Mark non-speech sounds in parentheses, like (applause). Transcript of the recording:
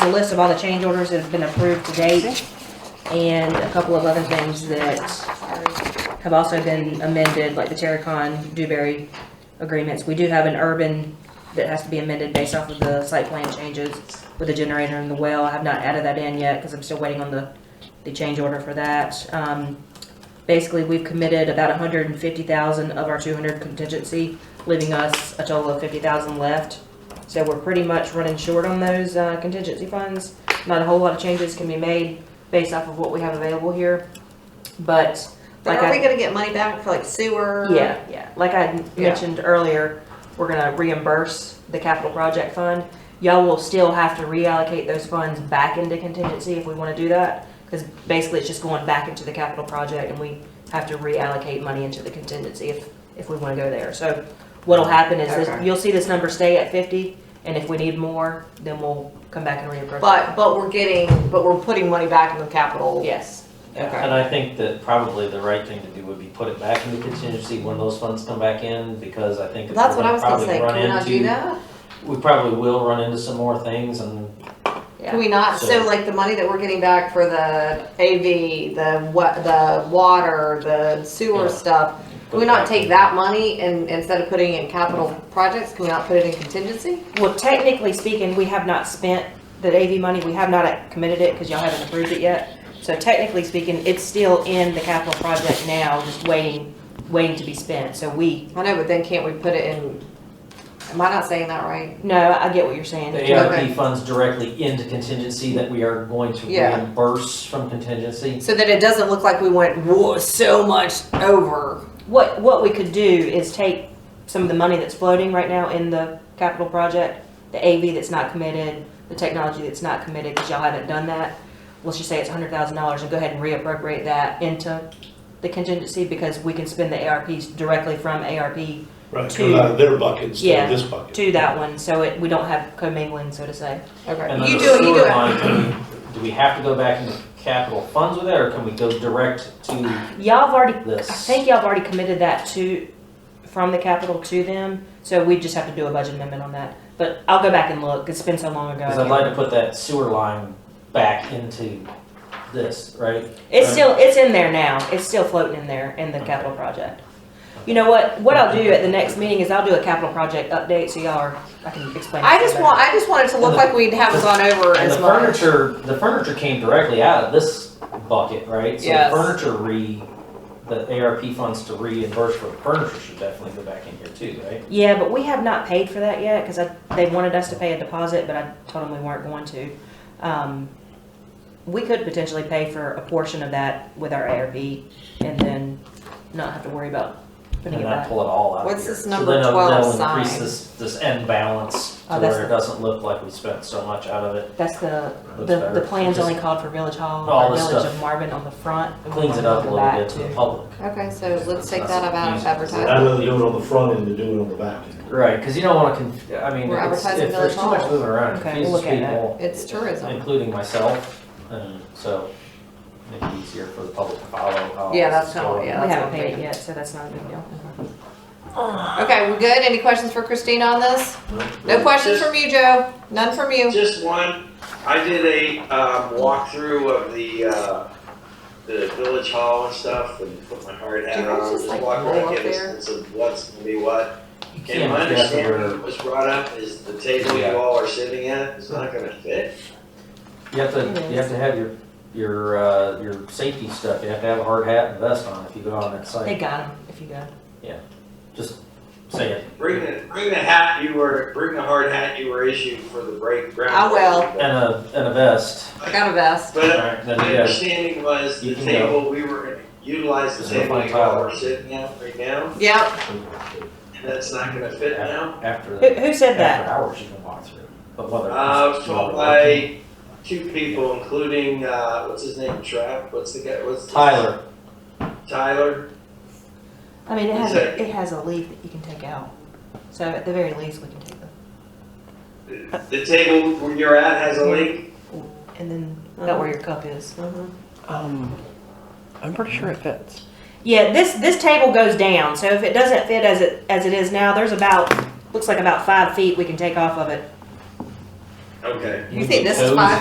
the list of all the change orders that have been approved to date, and a couple of other things that have also been amended, like the Terracon, Dewberry agreements. We do have an urban that has to be amended based off of the site plan changes with the generator and the well. I have not added that in yet, because I'm still waiting on the, the change order for that. Um, basically, we've committed about hundred and fifty thousand of our two hundred contingency, leaving us a total of fifty thousand left. So we're pretty much running short on those uh, contingency funds. Not a whole lot of changes can be made based off of what we have available here, but But like are I, we gonna get money back for like sewer? yeah, yeah. Like I Yeah. mentioned earlier, we're gonna reimburse the capital project fund. Y'all will still have to reallocate those funds back into contingency if we wanna do that. Cause basically it's just going back into the capital project and we have to reallocate money into the contingency if, if we wanna go there. So what'll happen is this, Okay. you'll see this number stay at fifty and if we need more, then we'll come back and reimburse. But, but we're getting, but we're putting money back in the capital. Yes, Okay. And I think that probably the right thing to do would be put it back into contingency when those funds come back in, because I think. That's what I was gonna we're say, run can we not do into- that? We probably will run into some more things and, Can we not, so So- like the money that we're getting back for the AV, the wa- the water, the sewer Yeah. stuff, can we not take that money and instead of putting it in capital projects, can we not put it in contingency? Well, technically speaking, we have not spent the AV money, we have not committed it, because y'all haven't approved it yet. So technically speaking, it's still in the capital project now, just waiting, waiting to be spent, so we, I know, but then can't we put it in, am I not saying that right? no, I get what you're saying. the Okay. ARP funds directly into contingency that we are going to Yeah. reimburse from contingency. So that it doesn't look like we went, whoa, so much over. What, what we could do is take some of the money that's floating right now in the capital project, the AV that's not committed, the technology that's not committed, because y'all haven't done that. Let's just say it's hundred thousand dollars, and go ahead and reappropriate that into the contingency, because we can spend the ARPs directly from ARP Right, it's to- coming out of their bucket instead Yeah, of this bucket. to that one, so it, we don't have commingling, so to say. And Okay, then you do it, the you do sewer it. line, can we- do we have to go back into capital funds with that, or can we go direct to Y'all have already, this? I think y'all have already committed that to, from the capital to them, so we just have to do a budget amendment on that. But I'll go back and look, it's been so long ago. I Because I'd can't like to put that sewer line back into this, right? It's still, it's in there now. It's still floating in there in the capital project. You know what, what I'll do at the next meeting is I'll do a capital project update so y'all are, I can explain. I it just better. want, I just want it to look And the- like we haven't gone over And the as much. furniture, the furniture came directly out of this bucket, right? Yes. So the furniture re, the ARP funds to reimburse for furniture should definitely go back in here too, right? Yeah, but we have not paid for that yet, cause I, they wanted us to pay a deposit, but I told them we weren't going to. Um, we could potentially pay for a portion of that with our ARP and then not have to worry about And putting it then I back. pull it all out of here. What's this So number then it'll- 12 They'll increase sign? this, this end balance Oh, to that's where it the- doesn't look like we spent so much out of it. That's the, Looks the, better. the plans Just only called for Village Hall, All or this Village stuff of Marvin on the front. and we Cleans wanted it up a go little back bit to too. the public. Okay, so let's take that out of advertising. I'd rather do it on the front end than do it on the back end. Right, because you don't want to, conf- I mean, We're it's- advertising if Village there's too much Hall. moving around, it Okay, confuses we'll look at that. people. It's tourism. Including myself, and so make it easier for the public to follow. how Yeah, this that's is kinda what- going. yeah. We that's haven't what I'm paid it thinking. yet, so that's not a big deal. Okay, we good? Any questions for Christina on this? No Nope. questions from you, Joe? None from you? Just one, I did a, um, walkthrough of the, uh, the village hall and stuff and put my hard Do hat you guys on, just, just like, walked roll up around, get a there? sense of what's gonna be what. You And can't my guess understanding where- that was brought up is the table Yeah. you all are sitting at is not gonna fit. You have to, It you have to have your, your, uh, your safety stuff, you have to have a hard hat and vest on if you go on that They site, got them, if you go. just say it. Bring the, bring the hat you were, bring the hard hat you were issued for the break ground. I will. And a, and a vest, I got a vest. But Alright, then my you guys- understanding was the You can table, we were gonna utilize the There's no table fun you all tile. are sitting at right now, Yep, and that's not gonna fit now. after, Who, the- who (laughs) said that? after hours you can walk through, but whether. Uh, it's told smaller. by two people, including, uh, what's his name, Trav, what's the guy, what's? his- Tyler, Tyler, I mean, it has, Who said a- it has a leaf that you can take out. So at the very least, we can take the, the table where you're at has a link, and then uh-huh. about where your cup is. Um, I'm pretty sure it fits. Yeah, this, this table goes down, so if it doesn't fit as it, as it is now, there's about, looks like about five feet we can take off of it. Okay. You think this is five